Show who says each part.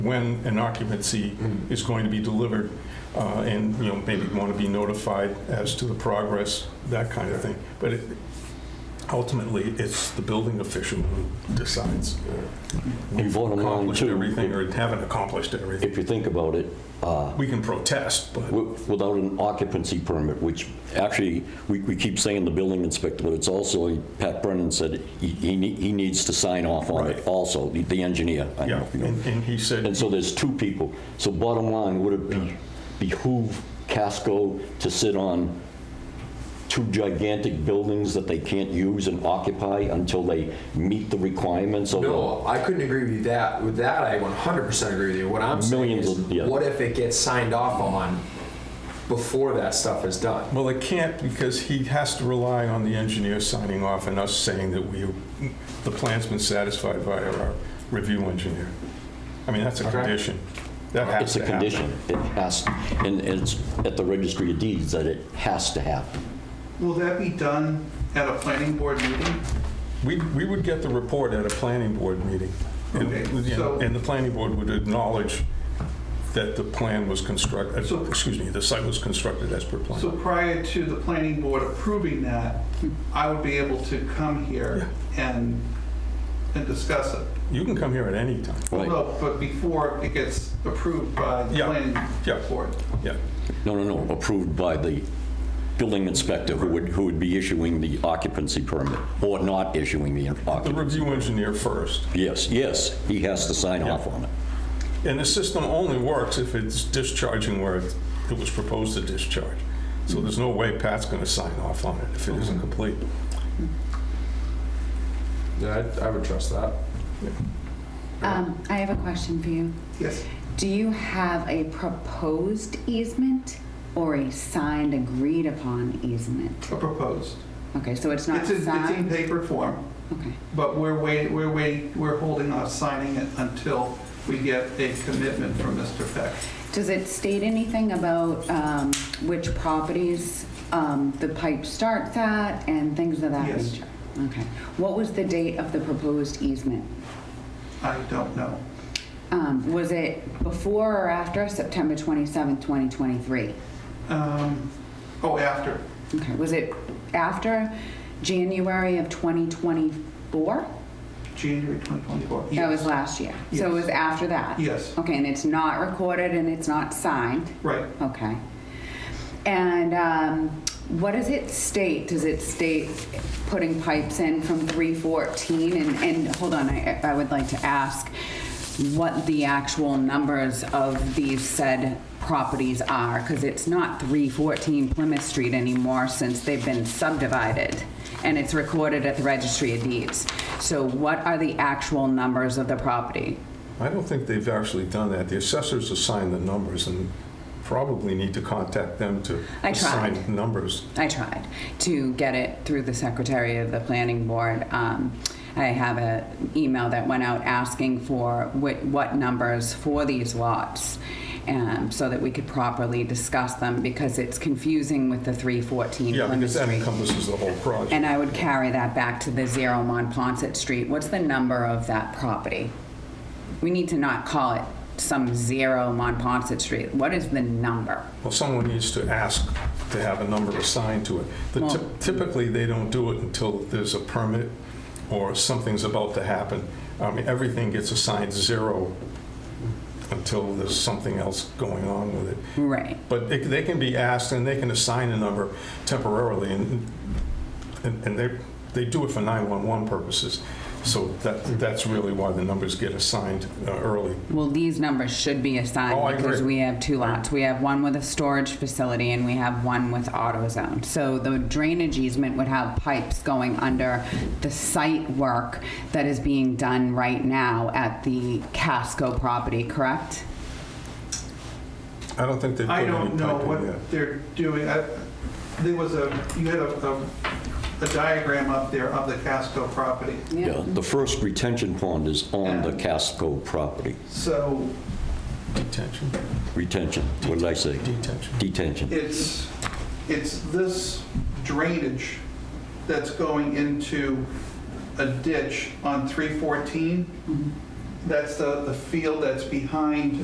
Speaker 1: when an occupancy is going to be delivered, uh, and, you know, maybe want to be notified as to the progress, that kind of thing. But it- ultimately, it's the building official who decides. We've
Speaker 2: bottom line,
Speaker 1: accomplished
Speaker 2: too,
Speaker 1: everything or haven't accomplished everything.
Speaker 2: If you think about it,
Speaker 1: We can protest, but
Speaker 2: wi- without an occupancy permit, which actually, we, we keep saying the building inspector, but it's also, Pat Brennan said, he, he nee- he needs to sign off on
Speaker 1: Right.
Speaker 2: it also, the- the engineer. I don't know
Speaker 1: Yeah,
Speaker 2: if you know.
Speaker 1: and and he
Speaker 2: And
Speaker 1: said,
Speaker 2: so there's two people. So bottom line, would it be- behoove Casco to sit on two gigantic buildings that they can't use and occupy until they meet the requirements of? the-
Speaker 3: No, I couldn't agree with you that. With that, I 100% agree with you. What I'm saying
Speaker 2: Millions
Speaker 3: is,
Speaker 2: of- yeah.
Speaker 3: what if it gets signed off on before that stuff is done?
Speaker 1: well, it can't because he has to rely on the engineer signing off and us saying that we, the plan's been satisfied by our review engineer. I mean, that's a
Speaker 3: Okay.
Speaker 1: condition. That has
Speaker 2: It's
Speaker 1: to
Speaker 2: a
Speaker 1: happen.
Speaker 2: condition. It has, and it's at the registry of deeds that it has to happen.
Speaker 4: Will that be done at a planning board meeting?
Speaker 1: We, we would get the report at a planning board meeting. And,
Speaker 4: Okay,
Speaker 1: you know,
Speaker 4: so-
Speaker 1: And the planning board would acknowledge that the plan was constructed,
Speaker 4: So-
Speaker 1: excuse me, the site was constructed as per plan.
Speaker 4: So prior to the planning board approving that, I would be able to come here and, and discuss it.
Speaker 1: You can come here at any time.
Speaker 2: Right.
Speaker 4: Well, But before it gets approved by the
Speaker 1: Yeah, yeah.
Speaker 4: planning board.
Speaker 1: Yeah.
Speaker 2: No, no, no, approved by the building inspector who would, who would be issuing the occupancy permit or not issuing the
Speaker 1: The
Speaker 2: occupancy.
Speaker 1: review engineer first.
Speaker 2: Yes, yes, he has to sign off on it.
Speaker 1: And the system only works if it's discharging where it it was proposed to discharge. So there's no way Pat's going to sign off on it if it isn't complete.
Speaker 3: Yeah, I, I would trust that.
Speaker 5: Um, I have a question for you.
Speaker 4: Yes.
Speaker 5: Do you have a proposed easement or a signed, agreed upon easement?
Speaker 4: A proposed.
Speaker 5: Okay, so it's not
Speaker 4: It's in, it's in
Speaker 5: signed?
Speaker 4: paper form,
Speaker 5: Okay,
Speaker 4: but we're waiting, we're waiting, we're holding off signing it until we get a commitment from Mr. Peck.
Speaker 5: does it state anything about, um, which properties, um, the pipe starts at and things of that
Speaker 4: Yes.
Speaker 5: nature? Okay, what was the date of the proposed easement?
Speaker 4: I don't know.
Speaker 5: Um, was it before or after September twenty-seventh, twenty twenty-three?
Speaker 4: Um, Oh, after.
Speaker 5: Okay, was it after January of twenty twenty-four?
Speaker 4: January 2024.
Speaker 5: That was
Speaker 4: Yes.
Speaker 5: last year. So it was after that?
Speaker 4: Yes.
Speaker 5: Okay, and it's not recorded and it's not signed?
Speaker 4: Right.
Speaker 5: Okay. And um, what does it state? Does it state putting pipes in from 314? And, and hold on, I, I would like to ask what the actual numbers of these said properties are, because it's not 314 Plymouth Street anymore since they've been subdivided, and it's recorded at the Registry of Deeds. So what are the actual numbers of the property?
Speaker 1: I don't think they've actually done that. The assessors assign the numbers and probably need to contact them to
Speaker 5: I
Speaker 1: assign
Speaker 5: tried.
Speaker 1: numbers.
Speaker 5: I tried to get it through the secretary of the planning board. Um, I have an email that went out asking for what, what numbers for these lots um, so that we could properly discuss them because it's confusing with the 314
Speaker 1: Yeah,
Speaker 5: Plymouth
Speaker 1: because that
Speaker 5: Street.
Speaker 1: encompasses the whole project.
Speaker 5: And I would carry that back to the zero Monpont Street. What's the number of that property? We need to not call it some zero Monpont Street. What is the number?
Speaker 1: Well, someone needs to ask to have a number assigned to it. The
Speaker 5: Well-
Speaker 1: typ- Typically, they don't do it until there's a permit or something's about to happen. I mean, everything gets assigned zero until there's something else going on with it.
Speaker 5: Right.
Speaker 1: But it- they can be asked, and they can assign a number temporarily, and, and and they, they do it for 911 purposes. So that, that's really why the numbers get assigned uh, early.
Speaker 5: Well, these numbers should be
Speaker 1: Oh, I
Speaker 5: assigned because
Speaker 1: agree.
Speaker 5: we have two lots. We have one with a storage facility and we have one with AutoZone. So the drainage easement would have pipes going under the site work that is being done right now at the Casco property, correct?
Speaker 1: I don't think they put
Speaker 4: I
Speaker 1: any
Speaker 4: don't know
Speaker 1: pipe in yet.
Speaker 4: what they're doing. I- There was a, you had a, a- a diagram up there of the Casco property.
Speaker 2: Yeah, the first retention pond is on the Casco property.
Speaker 4: So
Speaker 1: Detention,
Speaker 2: Retention, what did I say?
Speaker 1: detention.
Speaker 2: Detention.
Speaker 4: it's, it's this drainage that's going into a ditch on 314 That's the, the field that's behind